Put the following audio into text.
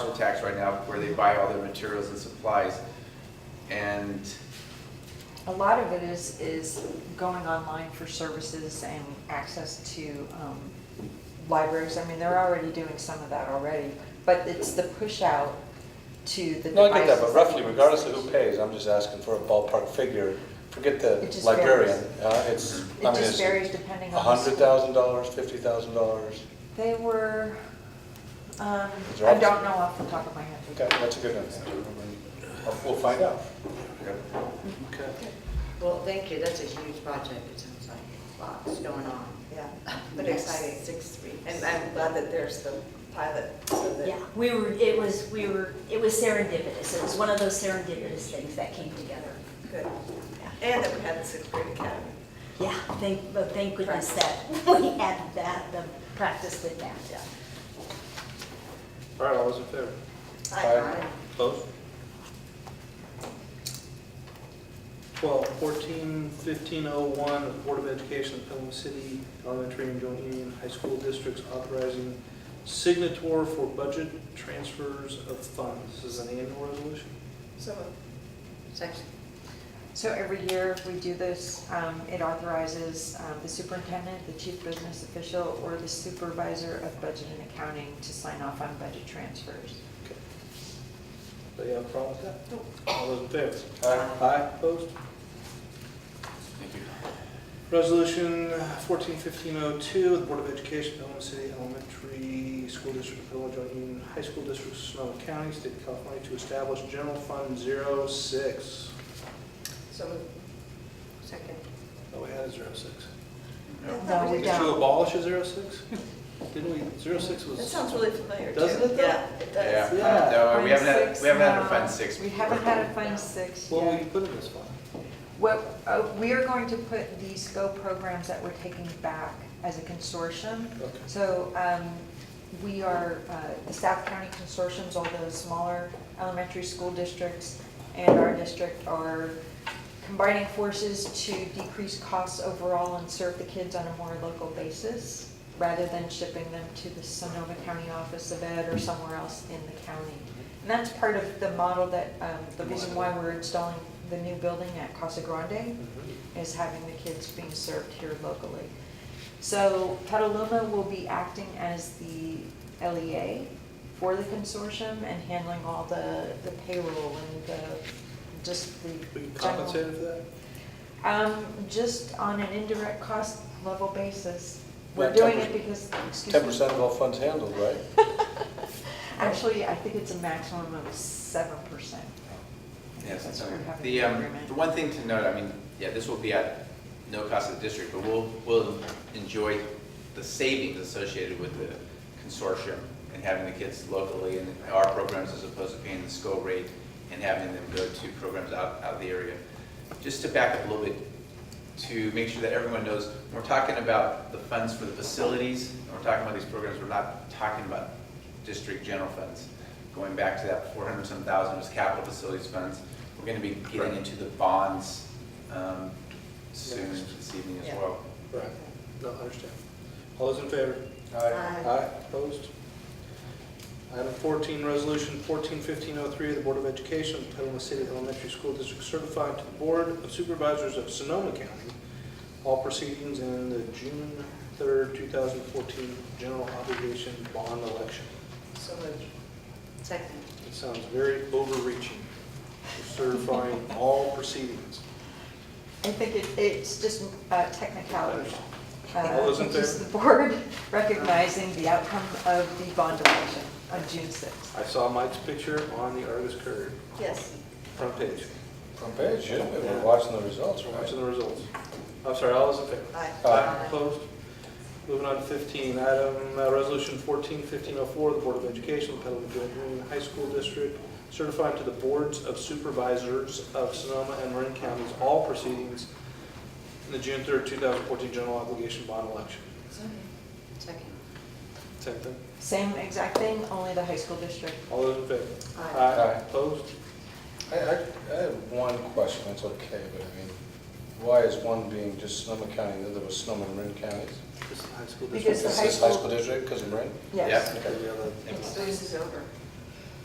tax right now where they buy all their materials and supplies. And A lot of it is, is going online for services and access to um, libraries. I mean, they're already doing some of that already, but it's the push out to the devices. No, I get that, but roughly, people regardless of use. who pays, I'm just asking for a ballpark figure. Forget It the just librarian, varies. uh, it's, It I mean, just it's varies depending a on the hundred school. thousand dollars, fifty thousand dollars. They were, um, Is there I opposite? don't know off the top of my head. Okay, that's a good one. We'll find out. Okay. Well, thank you, that's a huge project, it sounds like, lots going on. Yeah, But but exciting. exciting. Six weeks. And uh, I'm glad that there's the pilot, so that. Yeah, we were, it was, we were, it was serendipitous. It was one of those serendipitous things that came together. Good. And that we had the sixth grade academy. Yeah, thank, but thank goodness that we had that, the practice with that, yeah. All right, all those in favor? Aye. Close? 12, 14, 1501, the Board of Education of Pelham City Elementary and Joint Union High School Districts authorizing signator for budget transfers of funds. This is an annual resolution? So moved. Section, So every year we do this, um, it authorizes um, the superintendent, the chief business official, or the supervisor of budget and accounting to sign off on budget transfers. Do you have a problem with that? All those in favor? Aye. Aye, opposed? thank you. Resolution 141502, the Board of Education, Pelham City Elementary School District, Pelham Joint Union High School District, Sonoma County, State of California, to establish General Fund 06. So moved. second. Oh, we had a 06. No, we Did you don't. abolish a 06? Didn't we, 06 That was, sounds really familiar, too. Doesn't it, though? Yeah, it Yeah, does. Yeah. no, Uh, we haven't had, Fund we haven't had a Fund six, no. Six. We haven't had a Fund Six what will yet. you put in this fund? What, uh, we are going to put these scope programs that we're taking back as a consortium. Okay. So um, we are, uh, the South County consortiums, all those smaller elementary school districts and our district are combining forces to decrease costs overall and serve the kids on a more local basis rather than shipping them to the Sonoma County Office of Ed or somewhere else in the county. And that's part of the model that, um, the reason why we're installing the new building at Casa Grande is having the kids being served here locally. So Petaluma will be acting as the LEA for the consortium and handling all the, the payroll and the, just the. Will you general- compensate for that? Um, just on an indirect cost level basis. We're Yeah, doing 10%. it because, excuse me. Ten percent of all funds handled, right? Actually, I think it's a maximum of seven percent. Yes, that's That's what okay. we're having The, an um, agreement. the one thing to note, I mean, yeah, this will be at no cost to the district, but we'll, we'll enjoy the savings associated with the consortium and having the kids locally in our programs as opposed to paying the school rate and having them go to programs out, out of the area. Just to back up a little bit, to make sure that everyone knows, when we're talking about the funds for the facilities, when we're talking about these programs, we're not talking about district general funds. Going back to that four hundred some thousand was capital facilities funds. We're gonna be getting into the bonds, um, soon, this evening as Yeah. well. Right, no, I understand. All those in favor? Aye. Aye, opposed? Item 14, Resolution 141503, the Board of Education of Petaluma City Elementary School District certified to the Board of Supervisors of Sonoma County all proceedings in the June 3rd, 2014 general obligation bond election. So moved. Second. It sounds very overreaching, certifying all proceedings. I think it, it's just uh, technicality. Uh, All those in it's just favor? the board recognizing the outcome of the bond election on June 6th. I saw Mike's picture on the Argus Courier Yes. front page, Front page, yeah, we we're watching the results, right? watching the results. I'm sorry, all those in favor? Aye. Aye. Opposed? Moving on to 15, item, uh, Resolution 14-1504, the Board of Education, of Petaluma Joint Union High School District, certifying to the Boards of Supervisors of Sonoma and Marin Counties all proceedings in the June 3rd, 2014 general obligation bond election. Second. Same thing? Same exact thing, only the high school district. All those in favor? Aye. Aye. Opposed? I, I, I have one question, it's okay, but I mean, why is one being just Sonoma County, and the other was Sonoma and Marin counties? This is the high school Because district. the Is high this high school- school district, because of Marin? Yes. Yep. Okay, we have a- This is over.